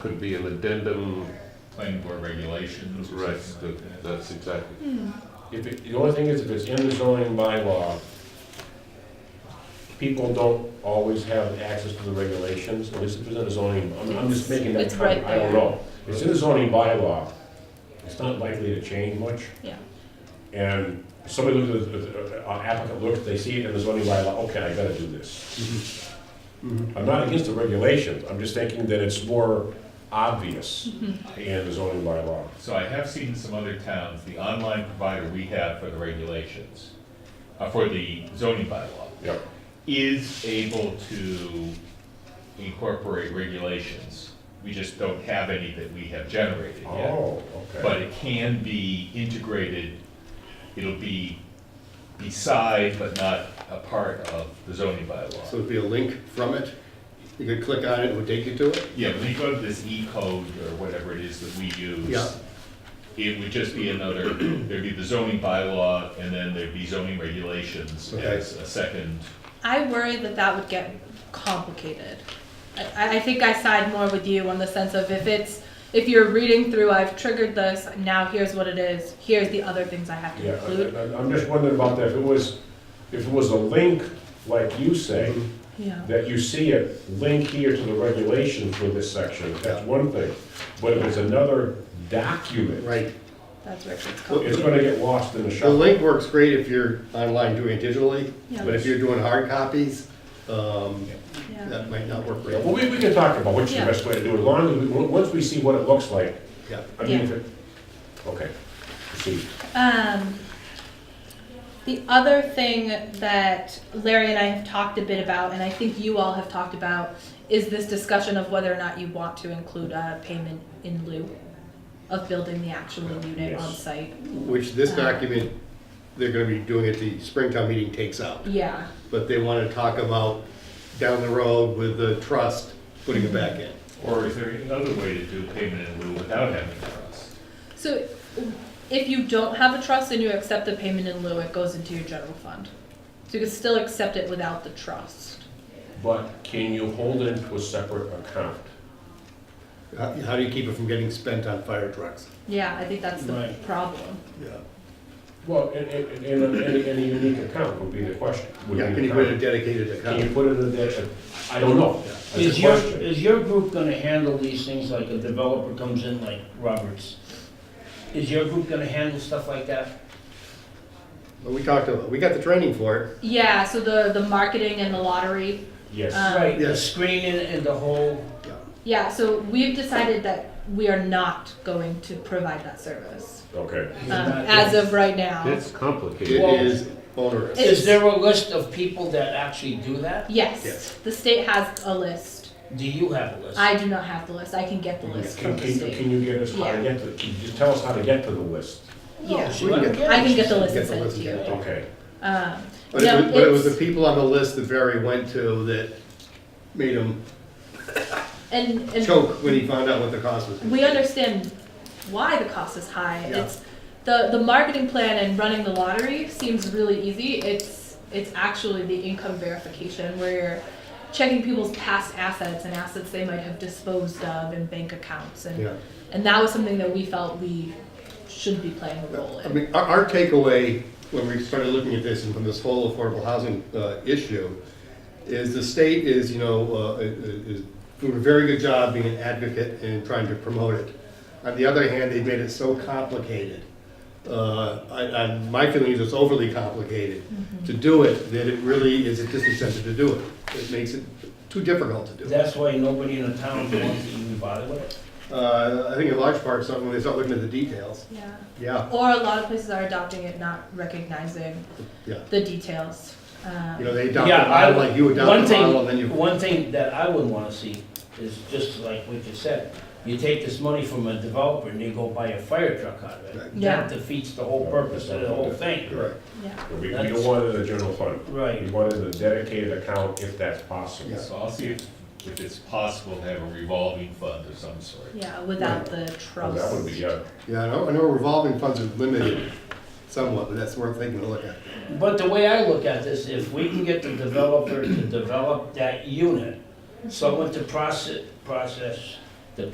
could be an addendum, planning board regulations or right, something like that- that. that's exactly. If it, the only thing is if it's in the zoning bylaw, people don't always have access to the regulations, at least if it's in the zoning, I'm, I'm just making that It's right comment, I don't there. know. It's in the zoning bylaw, it's not likely to change much. Yeah. And somebody looks at, the- uh, applicant looks, they see it in the zoning bylaw, okay, I gotta do this. I'm not against the regulations, I'm just thinking that it's more obvious Mm-hmm. in the zoning bylaw. So I have seen some other towns, the online provider we have for the regulations, uh, for the zoning bylaw, Yep, is able to incorporate regulations. We just don't have any that we have generated yet. oh, okay. But it can be integrated, it'll be beside but not a part of the zoning So bylaw. it'd be a link from it, you could click on it, it would take you to it? Yeah, when you go to this E-code or whatever it is that we use. Yeah. It would just be another, there'd be the zoning bylaw and then there'd be zoning regulations Okay. as a second. I worry that that would get complicated. I, I think I side more with you on the sense of if it's, if you're reading through, I've triggered this, now here's what it is, here's the other things I have to Yeah, include. I- I- I'm just wondering about that, if it was, if it was a link, like you say, Yeah. Mm-hmm. that you see it, link here to the regulation for this section, that's one thing. But if it's another document, Right. That's where it gets it's complicated. gonna get lost in the The shuffle. link works great if you're online doing it digitally, Yeah. but if you're doing hard copies, um, Yeah. that might not work Yeah, great. Well, we, we can talk about which is the Yeah. best way to do it, as long as, we- on- once we see what it looks like, Yeah. I mean, Yeah. if it, okay, proceed. Um, the other thing that Larry and I have talked a bit about, and I think you all have talked about, is this discussion of whether or not you want to include a payment in lieu of building the actual unit Yes. on site. Which this document, they're gonna be doing at the Springtown meeting takes out, Yeah. but they wanna talk about down the road with the trust, putting it back in. Or is there another way to do payment in lieu without having a trust? So if you don't have a trust and you accept the payment in lieu, it goes into your general fund. So you can still accept it without the trust. But can you hold it into a separate account? How, how do you keep it from getting spent on fire trucks? Yeah, I think that's the Right. problem. Yeah. Well, in, in, in, a- in a- in a unique account would be the question. would be Yeah, the can you put a comment. dedicated Can you account? put it in the, I don't know. That's a Is your, question. is your group gonna handle these things like a developer comes in like Roberts? Is your group gonna handle stuff like that? Well, We talked about, we got the training for it. Yeah, so the, the marketing and the lottery. Yes, Uh, Right, the Yes. screening and the whole, Yeah. Yeah, so we've decided that we are not going to provide that service okay. um, not- as of right now. It's It complicated. Well- is onerous. It- is there a list of people that actually do that? Yes, Yes. the state has a list. Do you have a list? I do not have the list. I can get the list Can, from the can, can state. you get us how to Yeah. get to, can you just tell us how to get to the list? Yeah, She let me get it. I can get the list Get and the send it list to and you. get it. Okay, Um, But it no, was, but it was it's- the people on the list that Barry went to that made him and, and choke when he found out what the cost was. we understand why the cost is high. Yeah. It's the the marketing plan and running the lottery seems really easy. It's it's actually the income verification where you're checking people's past assets and assets they might have disposed of and bank accounts and Yeah. and that was something that we felt we should be playing a role I in. mean, our, our takeaway when we started looking at this and from this whole affordable housing uh, issue is the state is, you know, uh, is doing a very good job being an advocate and trying to promote it. On the other hand, they made it so complicated. Uh, I, I, my feeling is it's overly complicated to do it, that it really is a disincentive to do it. It makes it too difficult to do. That's why nobody in the town wants to even bother with it? Uh, I think in large part, something when they start looking at the details. yeah. Yeah, Or a lot of places are adopting it, not recognizing yeah. the details. Um, You know, they adopt Yeah, the I, model like you one adopt the model, and then thing, you. one thing that I would wanna see is just like what you said, you take this money from a developer and you go buy a fire truck out of it. Yeah. That defeats the whole purpose of the whole thing. Correct. yeah. we, we That's- don't want it in the general fund. Right. We want it in a dedicated account if that's possible. Yeah. So I'll see if, if it's possible to have a revolving fund of some sort. Yeah, without the Well, trust. That would be, uh, yeah, Yeah, I know, I know revolving funds are limited somewhat, but that's worth taking a look at. But the way I look at this, if we can get the developer to develop that unit, someone to process, process